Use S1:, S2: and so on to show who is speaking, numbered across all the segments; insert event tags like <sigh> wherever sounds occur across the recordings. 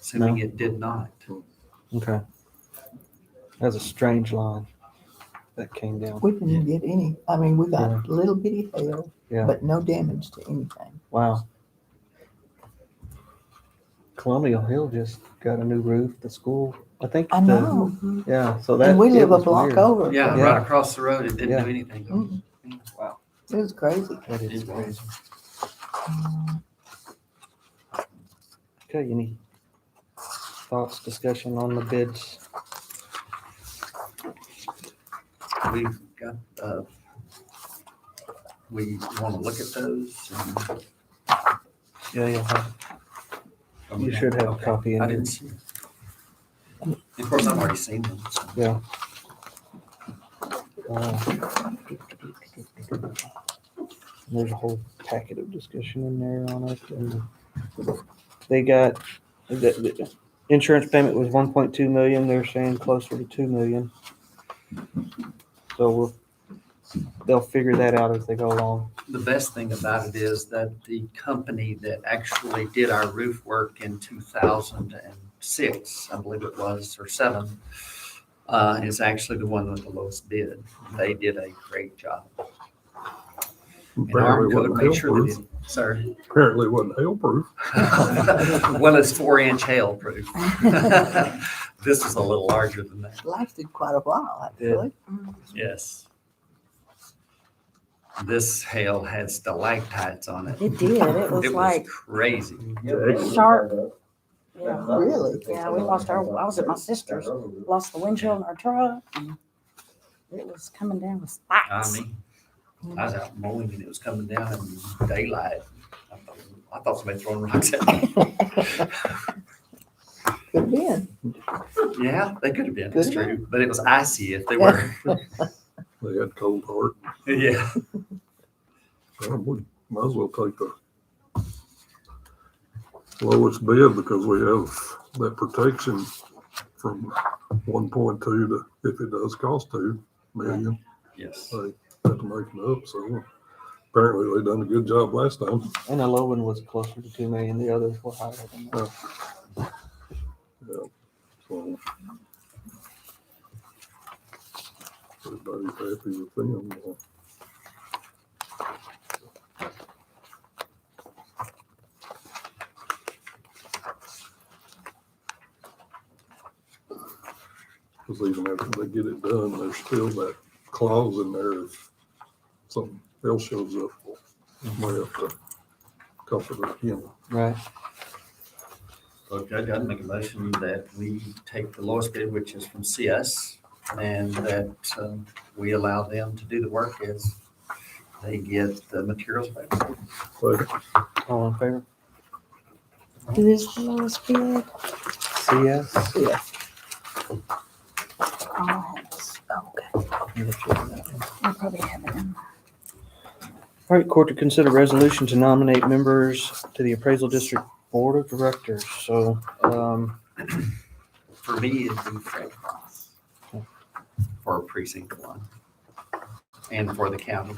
S1: assuming it did not.
S2: Okay. That's a strange line that came down.
S3: We didn't get any, I mean, we got
S2: Yeah.
S3: a little bitty hail,
S2: Yeah.
S3: but no damage to anything.
S2: Wow. Colonial Hill just got a new roof. The school, I think.
S3: I
S2: the-
S3: know,
S2: Yeah. So that.
S3: and we
S2: it
S3: live a
S2: was
S3: block
S2: weird.
S3: over.
S1: Yeah,
S2: Yeah.
S1: right across the road, it didn't
S2: Yeah.
S1: do anything.
S3: Mm,
S1: Wow.
S3: It was crazy.
S2: That is
S1: It was.
S2: crazy. Okay. Any thoughts, discussion on the bids?
S1: We've got, uh, we want to look at those. and-
S2: Yeah, you'll have, you should have a
S1: Okay.
S2: copy. in
S1: I
S2: there.
S1: didn't see it. Of course, I've already seen them. so.
S2: Yeah. Uh, There's a whole packet of discussion in there on it, and they got, the, the insurance payment was one point two million, they're saying closer to two million. So we'll, they'll figure that out as they go along.
S1: The best thing about it is that the company that actually did our roof work in two thousand and six, I believe it was, or seven, uh, is actually the one with the lowest bid. They did a great job. And ARM
S4: Apparently
S1: code
S4: wasn't hail
S1: made sure they
S4: proof.
S1: did, sorry.
S4: Apparently wasn't hail proof.
S1: <laughs> Well, it's four inch hail proof. <laughs> This is a little larger than that,
S3: Lasted quite a while,
S2: Yeah.
S3: actually.
S1: yes. This hail had stalactites on it.
S5: It did. It was
S1: It was
S5: like,
S1: crazy.
S5: Sharp. yeah,
S3: Really?
S5: yeah, we lost our, I was at my sister's, lost the windshield in our truck. and It was coming down with
S1: I
S5: spikes.
S1: mean, I was out mowing and it was coming down in daylight. I thought- I thought somebody throwing rocks at
S5: <laughs>
S1: me.
S3: Could have been.
S1: Yeah, they could have been, it's
S3: Could have
S1: true, but it was icy if they were.
S4: They had cold heart.
S1: <laughs> Yeah,
S4: Well, We might as well take the lowest bid because we have that protection from one point two to, if it does cost two million,
S1: yes.
S4: they have to make it up. So apparently they done a good job last time.
S2: And the low one was closer to two million, the others were higher than that.
S4: Yeah. So Everybody's happy with them. Because even after they get it done, there's still that clause in there if something else shows up, we have to cover it again.
S2: Right,
S1: Well, Judge, I'd make a motion that we take the lowest bid, which is from CS, and that um, we allow them to do the work as they get the materials back.
S4: So
S2: all in favor?
S5: It is the lowest bid.
S2: CS?
S3: Yes.
S5: Oh, it's- okay. I probably have it in.
S2: All right, court to consider resolution to nominate members to the appraisal district board of directors. So, um,
S1: For me, it'd be Fred Cross for precinct one and for the county.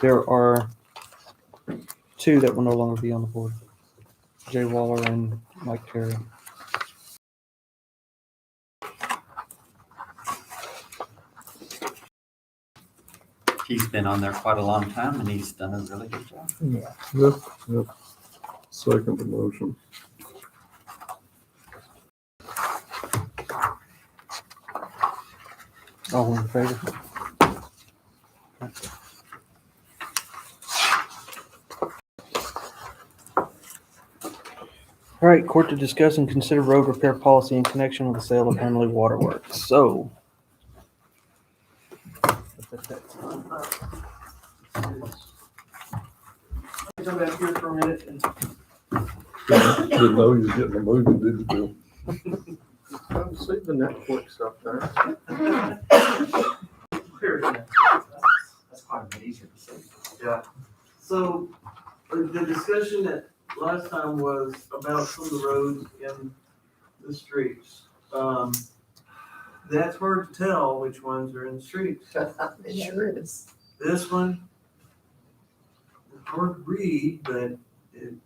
S2: there are two that will no longer be on the board. Jay Waller and Mike Terry.
S1: He's been on there quite a long time and he's done a really good job.
S3: Yeah.
S4: Yep, yep. Second the motion.
S2: All Oh, in favor? All right, court to discuss and consider road repair policy in connection with the sale of Hamley Waterworks. So.
S6: Come back here for a minute and,
S4: Didn't know you was getting a movie, did you, Bill?
S7: <laughs> Come see the Netflix up there.
S6: here,
S1: That's quite a bit easier to say.
S6: so uh, the discussion that last time was about some of the roads in the streets. Um, That's hard to tell which ones are in the streets.
S3: It sure is.
S6: This one, hard to read, but